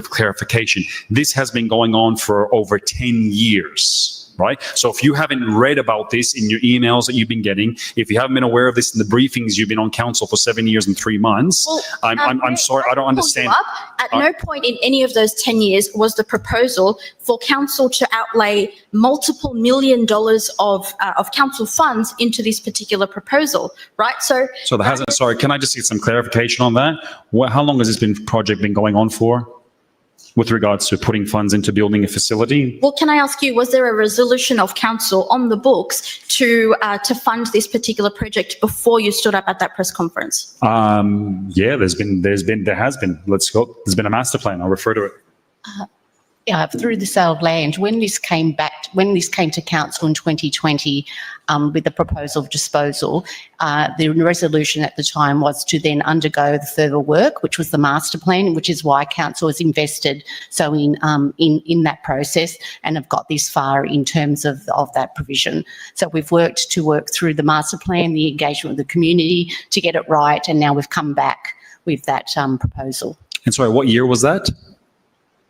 of clarification. This has been going on for over 10 years, right? So if you haven't read about this in your emails that you've been getting, if you haven't been aware of this in the briefings, you've been on council for seven years and three months. Well, I'm, um, I'm, I'm Mayor, sorry, I don't pull you understand. Uh, up. At no point in any of those 10 years was the proposal for council to outlay multiple million dollars of, uh, of council funds into this particular proposal, right? So So there hasn't, sorry, can I just get some clarification on that? What, how long has this been, project been going on for? With regards to putting funds into building a facility? Well, can I ask you, was there a resolution of council on the books to, uh, to fund this particular project before you stood up at that press conference? Um, yeah, there's been, there's been, there has been, let's go, there's been a master plan, I'll refer to it. Yeah, uh, through the sale of land, when this came back, when this came to council in 2020 um, with the proposal of disposal, uh, the resolution at the time was to then undergo the further work, which was the master plan, which is why council has invested so in um, in in that process and have got this far in terms of of that provision. So we've worked to work through the master plan, the engagement with the community to get it right, and now we've come back with that um, proposal. And sorry, what year was that?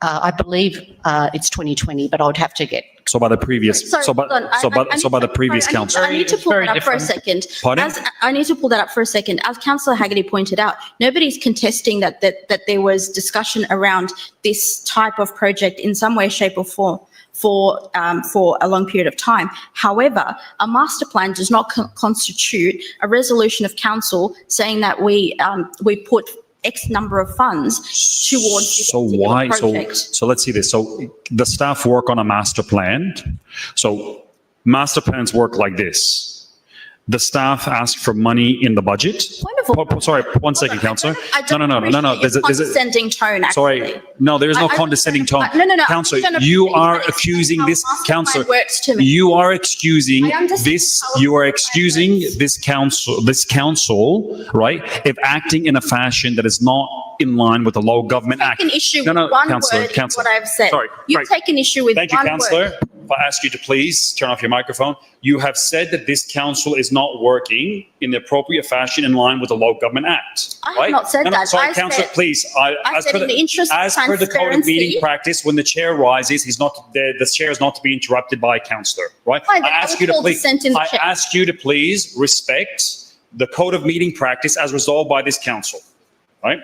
Uh, I believe uh, it's 2020, but I would have to get So by the previous, Sorry, so by, hold on. I- so by, I- I so by need- the previous sorry, I need- council. I need to It's pull very that up for a different. second. Pardon? As, I need to pull that up for a second. As councillor Haggerty pointed out, nobody's contesting that, that, that there was discussion around this type of project in some way, shape or form for, um, for a long period of time. However, a master plan does not co- constitute a resolution of council saying that we, um, we put X number of funds towards this So particular why, so, project. so let's see this. So the staff work on a master plan. So master plans work like this. The staff ask for money in the budget. Wonderful. Po- po- Sorry, one second, councillor. I No, don't no, no, no, no. appreciate There's a, your there's a, condescending tone, actually. sorry. No, there is I- no I- condescending tone. No, no, no. Counselor, I'm just you trying to are explain accusing how this mastermind councillor. Works to me. You are excusing I understand this, how you are it excusing works. this council, this council, right? If acting in a fashion that is not in line with the Local Government Act. Taken issue No, with no, one councillor, word in councillor. what I've said. Sorry, You've right. taken issue with one Thank you, word. councillor. If I ask you to please turn off your microphone. You have said that this council is not working in the appropriate fashion in line with the Local Government Act. I have right? not said No, no, that. Sorry, I councillor, said- please, I, I as said per in the the, interest of as per the code of meeting transparency- practice, when the chair rises, he's not, the, the chair is not to be interrupted by a councillor, right? Fine, I then I ask will you to hold the please, sentence I check. ask you to please respect the code of meeting practice as resolved by this council, right?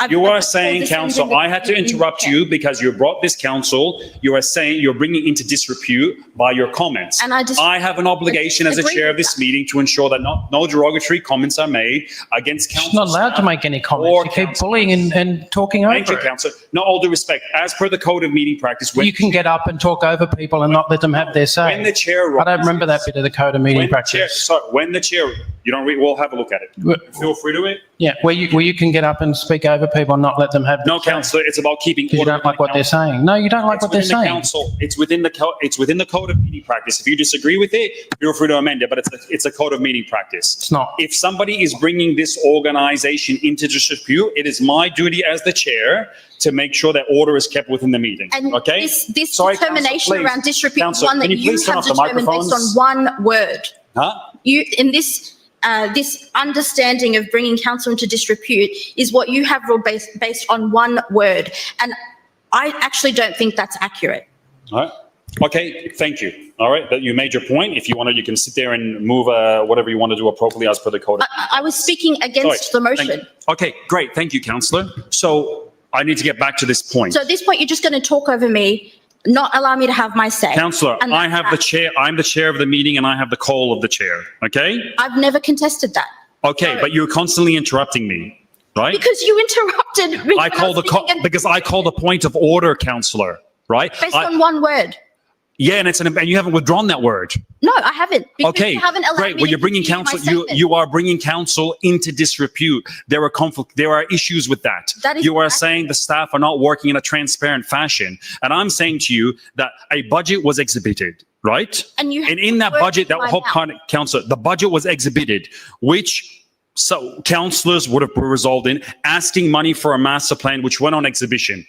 I've- You I've are told saying, this in council, the- I had to in the interrupt chat. you because you brought this council, you are saying, you're bringing into disrepute by your comments. And I just- I have an obligation as a Agree chair of with this meeting to ensure that not, no derogatory comments are made against council. She's not allowed to staff. make any or comments. You keep council. bullying and, and talking Thank you, over it. council. No, all due respect, as per the code of meeting practice, when, You can get up and talk over people and not let them have their say. when the chair. I don't remember that bit of the code of meeting When the chair, practice. sorry, when the chair, you don't read, we'll have a look at it. Wh- Feel free to it. Yeah, where you, where you can get up and speak over people and not let them have. No, councillor, it's about keeping. Because you order don't like in the what they're council. saying. No, you don't like It's what they're within the saying. council, it's within the, co- it's within the code of meeting practice. If you disagree with it, feel free to amend it, but it's, a- it's a code of meeting practice. It's not. If somebody is bringing this organization into dispute, it is my duty as the chair to make sure that order is kept within the meeting, And okay? this, this Sorry, council, determination please. around disrepute is Council, one that can you you please turn have off the determined based on microphones? one word. Huh? you in this uh, this understanding of bringing council into disrepute is what you have ruled based based on one word, and I actually don't think that's accurate. All right. Okay, thank you. All right, but you made your point. If you want to, you can sit there and move uh, whatever you want to do appropriately as per the code. of- I, I was speaking against the Sorry, thank- motion. Okay, great. Thank you, councillor. So I need to get back to this point. So at this point, you're just going to talk over me, not allow me to have my say. Councillor, And I that's have the that. chair, I'm the chair of the meeting and I have the call of the chair, okay? I've never contested that Okay, but you're constantly interrupting me, right? because you interrupted me. I when call the, was co- speaking and- because I call the point of order, councillor, right? based I- on one word. Yeah, and it's, an and you haven't withdrawn that word. No, I haven't. because Okay, you haven't allowed great. me Well, to you're bringing continue my council, you, statement. you are bringing council into disrepute. There are conflict, there are issues with that. That is You are correct. saying the staff are not working in a transparent fashion. And I'm saying to you that a budget was exhibited, right? And you. And in that words budget, that in my whole mouth. kind of council, the budget was exhibited, which so councillors would have resolved in asking money for a master plan, which went on exhibition.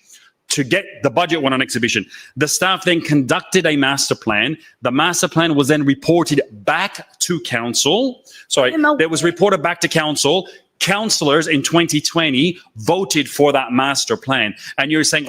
To get the budget went on exhibition. The staff then conducted a master plan. The master plan was then reported back to council. Sorry, I'm aware. there was reported back to council. Councillors in 2020 voted for that master plan. And you're saying,